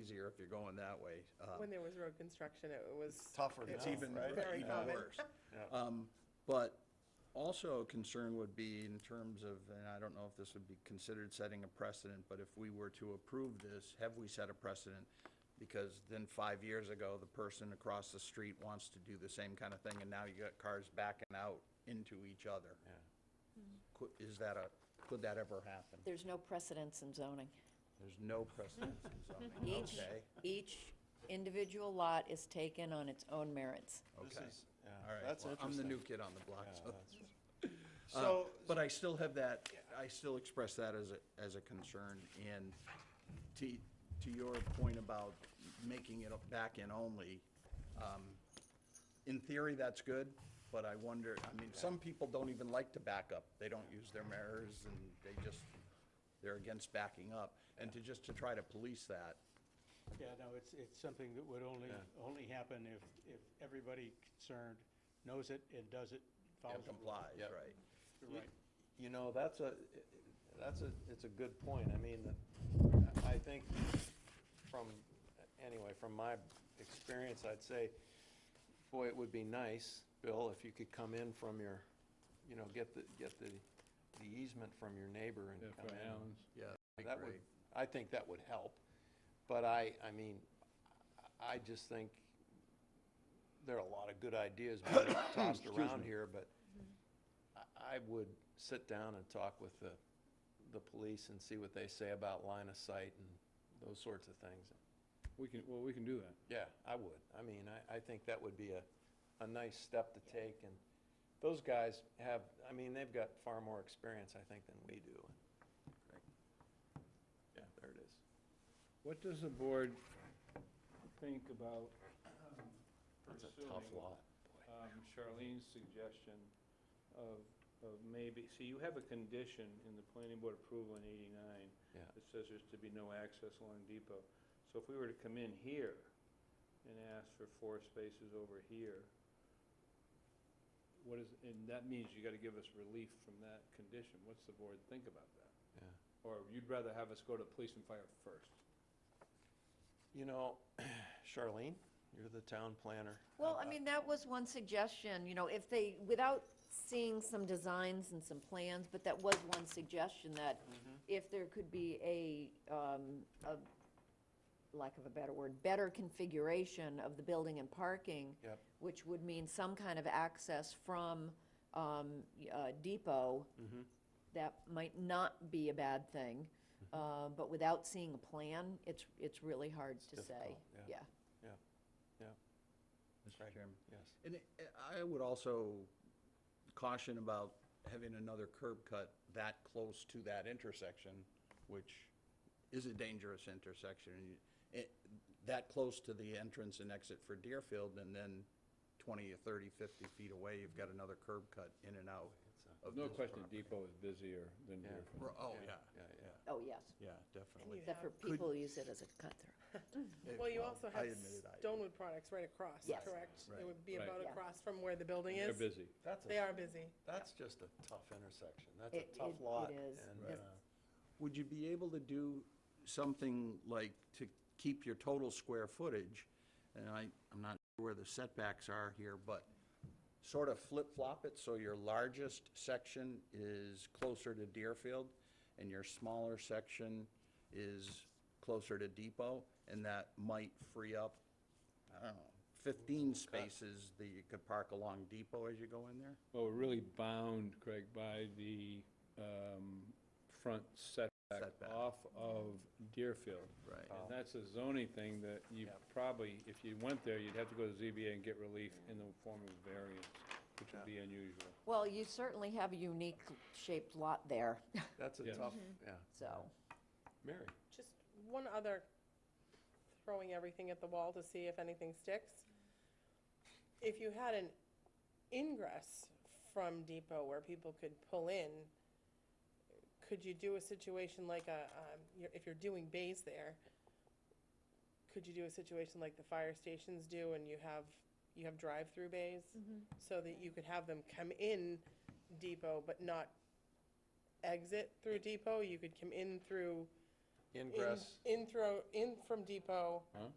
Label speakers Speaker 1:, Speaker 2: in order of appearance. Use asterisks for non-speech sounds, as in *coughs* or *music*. Speaker 1: year, if you're going that way. uh,
Speaker 2: When there was road construction, it was.
Speaker 3: Tougher
Speaker 2: it
Speaker 1: It's
Speaker 3: now,
Speaker 2: was
Speaker 1: even,
Speaker 3: right?
Speaker 2: very
Speaker 1: even
Speaker 2: common.
Speaker 1: worse. Um, But also a concern would be in terms of, and I don't know if this would be considered setting a precedent, but if we were to approve this, have we set a precedent? Because then five years ago, the person across the street wants to do the same kind of thing, and now you got cars backing out into each other.
Speaker 3: Yeah.
Speaker 1: Could, is that a, could that ever happen?
Speaker 4: There's no precedence in zoning.
Speaker 1: There's no precedent in zoning,
Speaker 4: Each,
Speaker 1: okay?
Speaker 4: each individual lot is taken on its own merits.
Speaker 3: This
Speaker 1: Okay.
Speaker 3: is- yeah,
Speaker 1: All right,
Speaker 3: that's
Speaker 1: well, I'm the
Speaker 3: interesting.
Speaker 1: new kid on the block,
Speaker 3: Yeah,
Speaker 1: so.
Speaker 3: that's-
Speaker 1: Uh,
Speaker 3: So,
Speaker 1: But I still have that, I still express that as a, as a concern, and to, to your point about making it back in only, um, in theory, that's good, but I wonder, I mean, some people don't even like to back up. They don't use their mirrors, and they just, they're against backing up, and to just to try to police that,
Speaker 5: Yeah, no, it's, it's something that would only, only happen if, if everybody concerned knows it and does it, follows
Speaker 1: and
Speaker 5: it.
Speaker 1: complies,
Speaker 3: Yep.
Speaker 1: right?
Speaker 3: You-
Speaker 5: Right.
Speaker 3: You know, that's a, that's a, it's a good point. I mean, I think from, anyway, from my experience, I'd say, boy, it would be nice, Bill, if you could come in from your, you know, get the, get the the easement from your neighbor and come in.
Speaker 1: Yeah, that'd be
Speaker 3: That
Speaker 1: great.
Speaker 3: would, I think that would help, but I, I mean, I- I just think there are a lot of good ideas being *coughs* tossed around here, but I, I would sit down and talk with the, the police and see what they say about line of sight and those sorts of things.
Speaker 6: We can, well, we can do that.
Speaker 3: Yeah, I would. I mean, I, I think that would be a, a nice step to take, and those guys have, I mean, they've got far more experience, I think, than we do. Yeah, there it is.
Speaker 6: What does the board think about um,
Speaker 3: That's a
Speaker 6: pursuing
Speaker 3: tough lot.
Speaker 6: um, Charlene's suggestion of, of maybe, see, you have a condition in the planning board approval in eighty-nine
Speaker 3: Yeah.
Speaker 6: that says there's to be no access along Depot. So if we were to come in here and ask for four spaces over here, what is, and that means you gotta give us relief from that condition. What's the board think about that?
Speaker 3: Yeah.
Speaker 6: Or you'd rather have us go to police and fire first?
Speaker 3: You know, *clears throat* Charlene, you're the town planner.
Speaker 4: Well, I mean, that was one suggestion, you know, if they, without seeing some designs and some plans, but that was one suggestion that
Speaker 3: Mm-hmm.
Speaker 4: if there could be a, um, a, lack of a better word, better configuration of the building and parking.
Speaker 3: Yep.
Speaker 4: Which would mean some kind of access from, um, y- uh, Depot.
Speaker 3: Mm-hmm.
Speaker 4: That might not be a bad thing,
Speaker 3: Mm-hmm.
Speaker 4: uh, but without seeing a plan, it's, it's really hard to say,
Speaker 3: difficult, yeah.
Speaker 4: yeah.
Speaker 1: Mr. Chairman.
Speaker 3: Yes.
Speaker 1: And it- I would also caution about having another curb cut that close to that intersection, which is a dangerous intersection. and you- it- That close to the entrance and exit for Deerfield, and then 20 or 30, 50 feet away, you've got another curb cut in and out of
Speaker 6: No
Speaker 1: this
Speaker 6: question
Speaker 1: property.
Speaker 6: Depot is busier than
Speaker 3: Yeah.
Speaker 6: Deerfield.
Speaker 1: Ro- Oh, yeah,
Speaker 3: Yeah, yeah.
Speaker 4: Oh, yes.
Speaker 1: yeah, definitely.
Speaker 4: Except for
Speaker 1: Could-
Speaker 4: people use it as a cut-through.
Speaker 1: It-
Speaker 2: Well, you also
Speaker 1: I
Speaker 2: have
Speaker 1: admitted I-
Speaker 2: Stonewood Products right across,
Speaker 4: Yes.
Speaker 2: correct?
Speaker 1: Right.
Speaker 2: It would be
Speaker 6: Right.
Speaker 2: about
Speaker 4: Yeah.
Speaker 2: across from where the building
Speaker 6: They're
Speaker 2: is.
Speaker 6: busy.
Speaker 3: That's,
Speaker 2: They
Speaker 3: a-
Speaker 2: are busy.
Speaker 3: that's just a tough intersection. That's
Speaker 4: It-
Speaker 3: a tough
Speaker 4: it-
Speaker 3: lot.
Speaker 4: it is.
Speaker 3: and,
Speaker 4: Right.
Speaker 3: uh,
Speaker 1: Would you be able to do something like to keep your total square footage? And I, I'm not sure where the setbacks are here, but sort of flip-flop it so your largest section is closer to Deerfield and your smaller section is closer to Depot, and that might free up, I don't know, fifteen spaces that you could park along Depot as you go in there?
Speaker 6: Well, we're really bound, Craig, by the um, front setback
Speaker 1: Setback.
Speaker 6: off of Deerfield.
Speaker 1: Right.
Speaker 6: And that's a zoning thing that you probably, if you went there, you'd have to go to ZBA and get relief in the form of variance, which would be unusual.
Speaker 4: Well, you certainly have a unique shaped lot there, *laughs*
Speaker 3: That's a
Speaker 6: Yeah.
Speaker 3: tough, yeah.
Speaker 4: so.
Speaker 3: Mm-hmm. Mary?
Speaker 2: Just one other, throwing everything at the wall to see if anything sticks. If you had an ingress from Depot where people could pull in, could you do a situation like a, um, you're- if you're doing bays there, could you do a situation like the fire stations do and you have, you have drive-through bays? So that you could have them come in Depot but not exit through Depot? You could come in through in,
Speaker 3: ingress.
Speaker 2: in throw, in from Depot